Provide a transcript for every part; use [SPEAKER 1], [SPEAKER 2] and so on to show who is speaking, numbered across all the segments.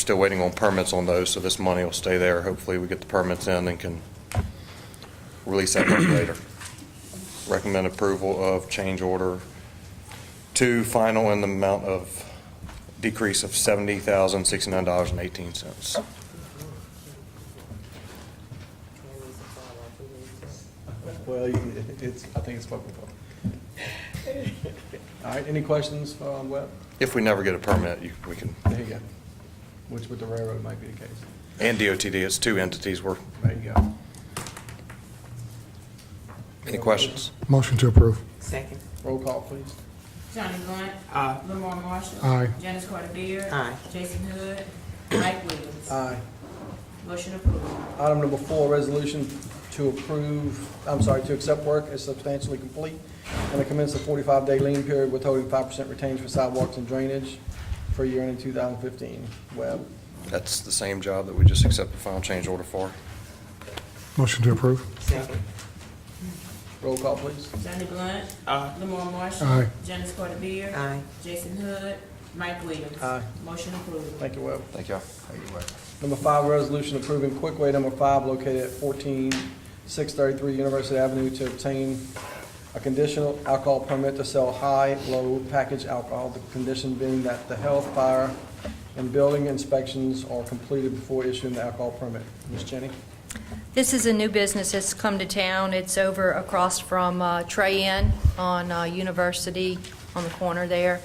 [SPEAKER 1] still waiting on permits on those, so this money will stay there. Hopefully, we get the permits in and can release that money later. Recommend approval of change order two, final in the amount of decrease of $70,069.18.
[SPEAKER 2] Well, you- it's, I think it's spoken for. All right, any questions from Webb?
[SPEAKER 1] If we never get a permit, you- we can,
[SPEAKER 2] There you go. Which with the railroad might be the case.
[SPEAKER 1] and DOTD, it's two entities. We're,
[SPEAKER 2] There you go.
[SPEAKER 1] any questions?
[SPEAKER 3] Motion to approve.
[SPEAKER 4] Second.
[SPEAKER 2] Roll call, please.
[SPEAKER 5] Johnny Blunt. Lamar Marshall.
[SPEAKER 3] Aye.
[SPEAKER 5] Janice Carter Beard.
[SPEAKER 4] Aye.
[SPEAKER 5] Jason Hood. Mike Williams.
[SPEAKER 2] Aye.
[SPEAKER 5] Motion approved.
[SPEAKER 2] Item number four, resolution to approve, I'm sorry, to accept work as substantially complete and to commence a 45-day lien period withholding 5% retained for sidewalks and drainage for year ending 2015. Webb?
[SPEAKER 1] That's the same job that we just accepted final change order for.
[SPEAKER 3] Motion to approve.
[SPEAKER 4] Second.
[SPEAKER 2] Roll call, please.
[SPEAKER 5] Johnny Blunt. Lamar Marshall.
[SPEAKER 3] Aye.
[SPEAKER 5] Janice Carter Beard.
[SPEAKER 4] Aye.
[SPEAKER 5] Jason Hood. Mike Williams.
[SPEAKER 2] Aye.
[SPEAKER 5] Motion approved.
[SPEAKER 2] Thank you, Webb.
[SPEAKER 1] Thank you.
[SPEAKER 2] Number five, resolution approving Quickway number five located at fourteen six thirty-three University Avenue to obtain a conditional alcohol permit to sell high, low package alcohol, the condition being that the health, fire, and building inspections are completed before issuing the alcohol permit. Ms. Jenny?
[SPEAKER 6] This is a new business that's come to town. It's over across from uh, Trey Inn on uh, University, on the corner there.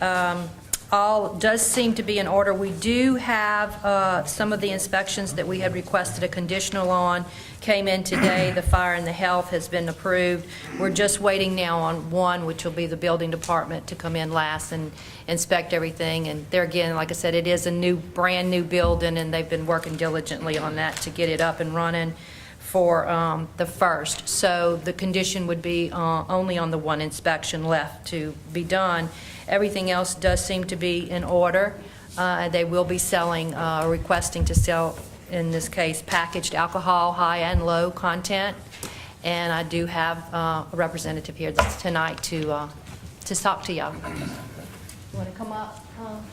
[SPEAKER 6] Um, All does seem to be in order. We do have uh, some of the inspections that we had requested a conditional on came in today. The fire and the health has been approved. We're just waiting now on one, which will be the building department, to come in last and inspect everything. And there again, like I said, it is a new, brand-new building, and they've been working diligently on that to get it up and running for um, the first. So the condition would be uh, only on the one inspection left to be done. Everything else does seem to be in order. Uh, They will be selling, uh, requesting to sell, in this case, packaged alcohol, high and low content. And I do have uh, a representative here this- tonight to, uh, to talk to y'all. Want to come up? Tom?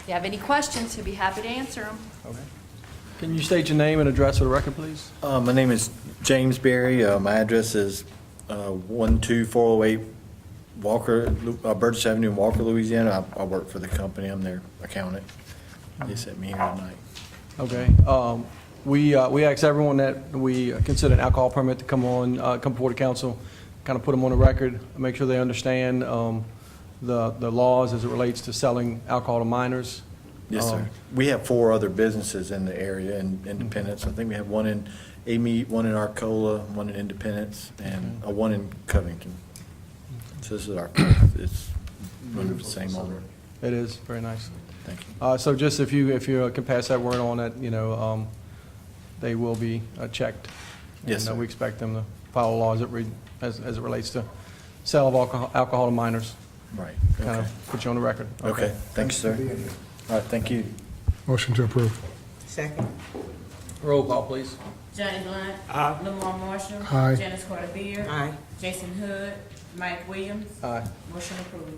[SPEAKER 6] If you have any questions, he'll be happy to answer them.
[SPEAKER 2] Okay. Can you state your name and address for the record, please?
[SPEAKER 7] Uh, My name is James Berry. Uh, My address is uh, 12408 Walker, Lu- uh, Burgess Avenue, in Walker, Louisiana. I I work for the company. I'm their accountant. They sent me here tonight.
[SPEAKER 2] Okay, um, we, uh, we asked everyone that we consider an alcohol permit to come on, uh, come before the council, kind of put them on the record, make sure they understand, um, the, the laws as it relates to selling alcohol to minors.
[SPEAKER 7] Yes,
[SPEAKER 2] Um,
[SPEAKER 7] sir. We have four other businesses in the area in Independence. I think we have one in Amy, one in Arcola, one in Independence, and uh, one in Covington. So this is our, fourth. it's under the same owner.
[SPEAKER 2] It is, very nice.
[SPEAKER 7] Thank you.
[SPEAKER 2] Uh, so just if you, if you uh, can pass that word on that, you know, um, they will be uh, checked.
[SPEAKER 7] Yes,
[SPEAKER 2] And, uh,
[SPEAKER 7] sir.
[SPEAKER 2] we expect them to follow laws that re, as, as it relates to sale of alcohol, alcohol to minors.
[SPEAKER 7] Right.
[SPEAKER 2] Kind
[SPEAKER 7] Okay.
[SPEAKER 2] of put you on the record.
[SPEAKER 7] Okay. Thanks, sir. All right, thank you.
[SPEAKER 3] Motion to approve.
[SPEAKER 4] Second.
[SPEAKER 2] Roll call, please.
[SPEAKER 5] Johnny Blunt. Lamar Marshall.
[SPEAKER 3] Aye.
[SPEAKER 5] Janice Carter Beard.
[SPEAKER 4] Aye.
[SPEAKER 5] Jason Hood. Mike Williams.
[SPEAKER 2] Aye.
[SPEAKER 5] Motion approved.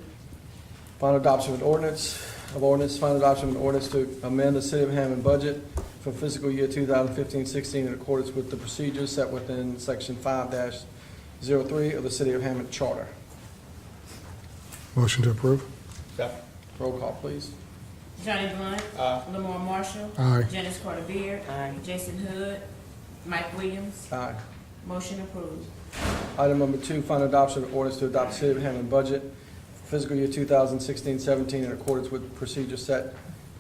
[SPEAKER 2] Final adoption of an ordinance, of ordinance, final adoption of an ordinance to amend the City of Hammond budget for fiscal year 2015-16 in accordance with the procedures set within Section 5-03 of the City of Hammond Charter.
[SPEAKER 3] Motion to approve.
[SPEAKER 2] Roll call, please.
[SPEAKER 5] Johnny Blunt. Lamar Marshall.
[SPEAKER 3] Aye.
[SPEAKER 5] Janice Carter Beard.
[SPEAKER 4] Aye.
[SPEAKER 5] Jason Hood. Mike Williams.
[SPEAKER 2] Aye.
[SPEAKER 5] Motion approved.
[SPEAKER 2] Item number two, final adoption of ordinance to adopt City of Hammond budget for fiscal year 2016-17 in accordance with procedures set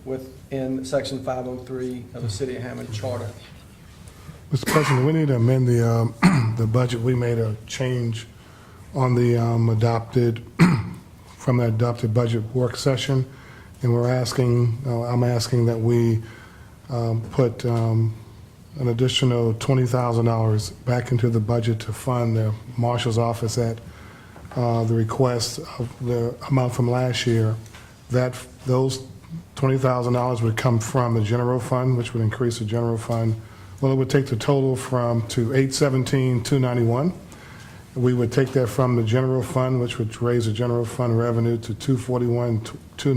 [SPEAKER 2] within Section 503 of the City of Hammond Charter.
[SPEAKER 3] Mr. President, we need to amend the, um, the budget. We made a change on the um, adopted, from the adopted budget work session, and we're asking, uh, I'm asking that we um, put um, an additional $20,000 back into the budget to fund the marshal's office at uh, the request of the amount from last year. That, those $20,000 would come from the general fund, which would increase the general fund. Well, it would take the total from, to 817,291. We would take that from the general fund, which would raise the general fund revenue to 241,